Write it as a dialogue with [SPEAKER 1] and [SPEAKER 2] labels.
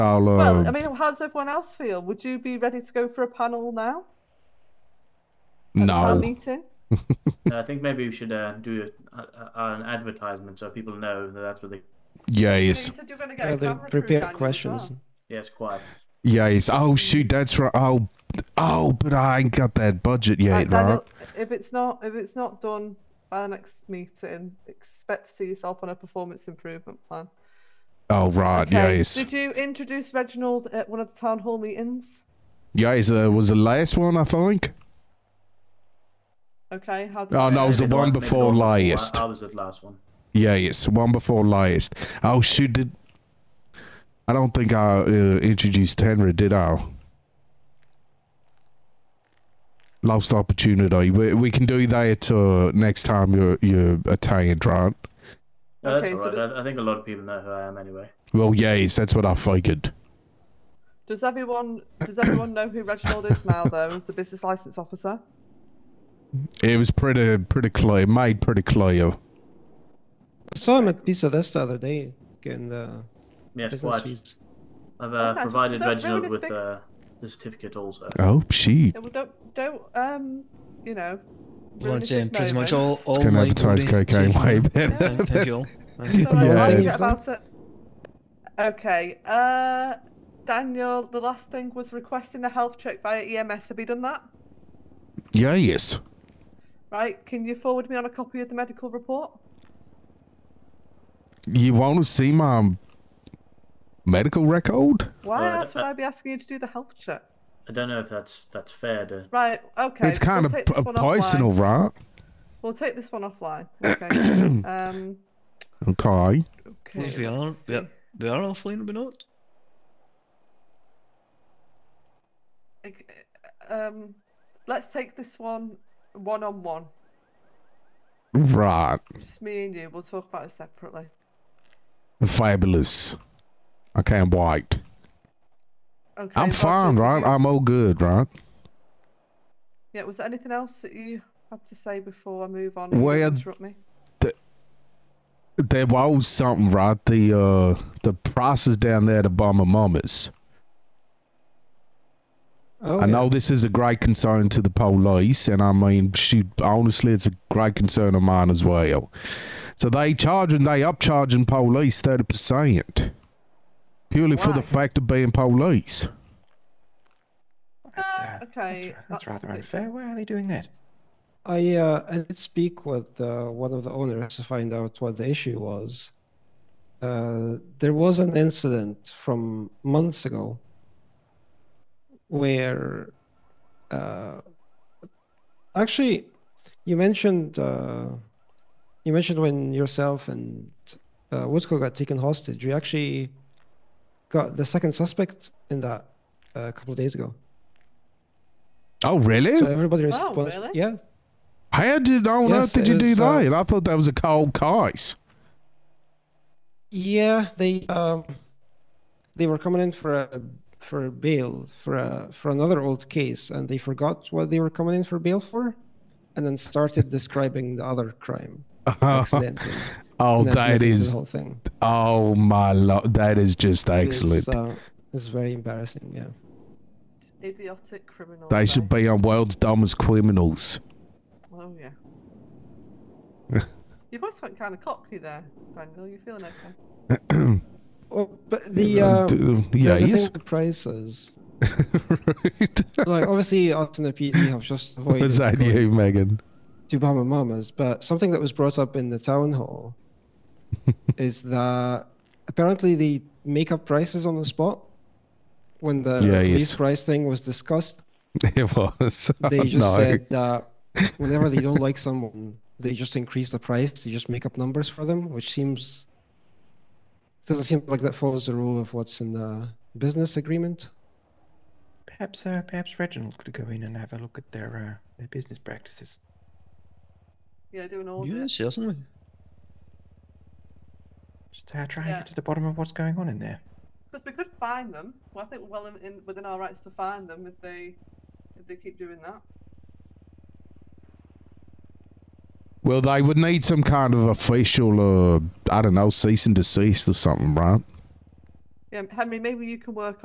[SPEAKER 1] I'll,
[SPEAKER 2] Well,
[SPEAKER 1] um,
[SPEAKER 2] I mean, how does everyone else feel? Would you be ready to go for a panel now? At
[SPEAKER 1] no.
[SPEAKER 2] town meeting?
[SPEAKER 3] No, I think maybe we should uh, do a, a, an advertisement so people know that that's what they.
[SPEAKER 1] Yes.
[SPEAKER 2] You said you were going to get
[SPEAKER 4] Yeah,
[SPEAKER 2] a
[SPEAKER 4] they
[SPEAKER 2] camera crew down
[SPEAKER 4] prepare
[SPEAKER 2] here as
[SPEAKER 4] questions.
[SPEAKER 2] well.
[SPEAKER 3] Yes, quiet.
[SPEAKER 1] Yes. Oh shoot, that's right. Oh, oh, but I ain't got that budget
[SPEAKER 2] Right,
[SPEAKER 1] yet, right?
[SPEAKER 2] Daniel, if it's not if it's not done by the next meeting, expect to see yourself on a performance improvement plan.
[SPEAKER 1] Oh right,
[SPEAKER 2] Okay,
[SPEAKER 1] yes.
[SPEAKER 2] Did you introduce Reginald at one of the town hall meetings?
[SPEAKER 1] Yes, uh, was the last one I think.
[SPEAKER 2] Okay, how did
[SPEAKER 1] Oh no, it was the
[SPEAKER 3] Maybe
[SPEAKER 1] one
[SPEAKER 3] not- maybe
[SPEAKER 1] before
[SPEAKER 3] not before. I-
[SPEAKER 1] last.
[SPEAKER 3] I was the last one.
[SPEAKER 1] Yes, one before last. Oh shoot, did I don't think I uh, introduced Henry, did I? Lost opportunity. We, we can do that uh, next time you're you're attained, right?
[SPEAKER 3] No,
[SPEAKER 2] Okay,
[SPEAKER 3] Uh, that's
[SPEAKER 2] so
[SPEAKER 3] all right.
[SPEAKER 2] the-
[SPEAKER 3] I, I think a lot of people know who I am anyway.
[SPEAKER 1] Well, yes, that's what I figured.
[SPEAKER 2] does everyone does everyone know who Reginald is now though as the business license officer?
[SPEAKER 1] It was pretty pretty clear, made pretty clear.
[SPEAKER 4] I saw him at Pizza Dest the other day getting the
[SPEAKER 3] Yes,
[SPEAKER 4] business
[SPEAKER 3] quiet.
[SPEAKER 4] fees.
[SPEAKER 3] I've
[SPEAKER 2] Oh,
[SPEAKER 3] uh,
[SPEAKER 2] nice. Well,
[SPEAKER 3] provided
[SPEAKER 2] don't ruin
[SPEAKER 3] Reginald
[SPEAKER 2] his
[SPEAKER 3] with
[SPEAKER 2] big-
[SPEAKER 3] uh, the certificate also.
[SPEAKER 1] Oh shit!
[SPEAKER 2] Yeah, well, don't don't um you know. ruin
[SPEAKER 5] Blood
[SPEAKER 2] his
[SPEAKER 5] saying pretty much all,
[SPEAKER 2] moments.
[SPEAKER 5] all
[SPEAKER 4] Oh
[SPEAKER 1] Can
[SPEAKER 5] my
[SPEAKER 1] advertise
[SPEAKER 5] glory
[SPEAKER 1] cocaine
[SPEAKER 5] taken
[SPEAKER 1] way
[SPEAKER 5] up.
[SPEAKER 1] better.
[SPEAKER 5] Thank, thank you all. Thank
[SPEAKER 2] It's
[SPEAKER 5] you.
[SPEAKER 2] all right,
[SPEAKER 1] Yeah.
[SPEAKER 2] I'll forget
[SPEAKER 4] Yeah.
[SPEAKER 2] about it. Okay. Uh, Daniel, the last thing was requesting a health check via EMS. Have you done that?
[SPEAKER 1] Yes.
[SPEAKER 2] Right. Can you forward me on a copy of the medical report?
[SPEAKER 1] You want to see my medical record?
[SPEAKER 2] Why
[SPEAKER 3] Uh,
[SPEAKER 2] else would
[SPEAKER 3] uh,
[SPEAKER 2] I be asking you to do the health check?
[SPEAKER 3] I don't know if that's that's fair to.
[SPEAKER 2] Right. Okay.
[SPEAKER 1] it's kind
[SPEAKER 2] we'll
[SPEAKER 1] of
[SPEAKER 2] take
[SPEAKER 1] p-
[SPEAKER 2] this one
[SPEAKER 1] personal,
[SPEAKER 2] Offline.
[SPEAKER 1] right?
[SPEAKER 2] We'll take this one offline. Okay. um.
[SPEAKER 1] Okay.
[SPEAKER 2] Okay.
[SPEAKER 5] If we are,
[SPEAKER 2] let's
[SPEAKER 5] we are,
[SPEAKER 2] see.
[SPEAKER 5] we are offline, we're not.
[SPEAKER 2] Like, Um. Let's take this one one on one.
[SPEAKER 1] Right.
[SPEAKER 2] Just me and you. We'll talk about it separately.
[SPEAKER 1] Fabulous. I can't wait.
[SPEAKER 2] Okay.
[SPEAKER 1] I'm
[SPEAKER 2] Roger,
[SPEAKER 1] fine,
[SPEAKER 2] did
[SPEAKER 1] right?
[SPEAKER 2] you-
[SPEAKER 1] I'm all good, right?
[SPEAKER 2] Yeah, was there anything else that you had to say before I move on?
[SPEAKER 1] Well,
[SPEAKER 2] Well, interrupt me.
[SPEAKER 1] There was something, right? The uh the prices down there to buy my mamas.
[SPEAKER 4] Oh,
[SPEAKER 1] I
[SPEAKER 4] yeah.
[SPEAKER 1] know this is a great concern to the police, and I mean, shoot, honestly, it's a great concern of mine as well. So they charging, they upcharging police thirty percent, purely for the
[SPEAKER 2] Why?
[SPEAKER 1] fact of being police.
[SPEAKER 6] That's,
[SPEAKER 2] Uh,
[SPEAKER 6] uh,
[SPEAKER 2] okay,
[SPEAKER 6] that's, ra- that's
[SPEAKER 2] that's
[SPEAKER 6] rather
[SPEAKER 2] ridiculous.
[SPEAKER 6] unfair. Why are they doing that?
[SPEAKER 4] I uh, I did speak with uh, one of the owners to find out what the issue was. Uh, there was an incident from months ago where, uh, actually, you mentioned uh, you mentioned when yourself and uh, Woodcock got taken hostage. You actually got the second suspect in that uh, a couple of days ago.
[SPEAKER 1] Oh, really?
[SPEAKER 4] So everybody
[SPEAKER 2] Oh,
[SPEAKER 4] responds,
[SPEAKER 2] really?
[SPEAKER 4] yeah.
[SPEAKER 1] How did on
[SPEAKER 4] Yes,
[SPEAKER 1] earth did you
[SPEAKER 4] it
[SPEAKER 1] do
[SPEAKER 4] was, uh,
[SPEAKER 1] that? I thought that was a cold case.
[SPEAKER 4] Yeah, they um, they were coming in for a for a bail for a for another old case, and they forgot what they were coming in for bail for, and then started describing the other crime accidentally.
[SPEAKER 1] Oh,
[SPEAKER 4] and that led
[SPEAKER 1] that
[SPEAKER 4] into
[SPEAKER 1] is
[SPEAKER 4] the whole thing.
[SPEAKER 1] oh my lord, that is just excellent.
[SPEAKER 4] It's, uh, it's very embarrassing. Yeah.
[SPEAKER 2] It's Idiotic criminal.
[SPEAKER 1] they should be on world's dumbest criminals.
[SPEAKER 2] Oh yeah. Your voice went kind of cockney there, Daniel. You feeling okay?
[SPEAKER 4] Oh, but the uh, the, the thing
[SPEAKER 1] yes.
[SPEAKER 4] with the prices, like obviously, us and the PD have just avoided
[SPEAKER 1] Was that
[SPEAKER 4] going
[SPEAKER 1] you, Megan?
[SPEAKER 4] to Bahama Mamas, but something that was brought up in the town hall is that apparently they make up prices on the spot. When the
[SPEAKER 1] Yeah,
[SPEAKER 4] police
[SPEAKER 1] yes.
[SPEAKER 4] price thing was discussed,
[SPEAKER 1] It was.
[SPEAKER 4] they
[SPEAKER 1] Oh,
[SPEAKER 4] just
[SPEAKER 1] no.
[SPEAKER 4] said that whenever they don't like someone, they just increase the price. They just make up numbers for them, which seems doesn't seem like that follows the rule of what's in the business agreement.
[SPEAKER 6] Perhaps, uh, perhaps Reginald could go in and have a look at their uh, their business practices.
[SPEAKER 2] Yeah, doing all
[SPEAKER 5] Yeah,
[SPEAKER 2] this.
[SPEAKER 5] certainly.
[SPEAKER 6] Just uh, try
[SPEAKER 2] Yeah.
[SPEAKER 6] and get to the bottom of what's going on in there.
[SPEAKER 2] Because we could find them. Well, I think we're well in, in, within our rights to find them if they if they keep doing that.
[SPEAKER 1] Well, they would need some kind of official, uh, I don't know, cease and desist or something, right?
[SPEAKER 2] Yeah, Henry, maybe you can work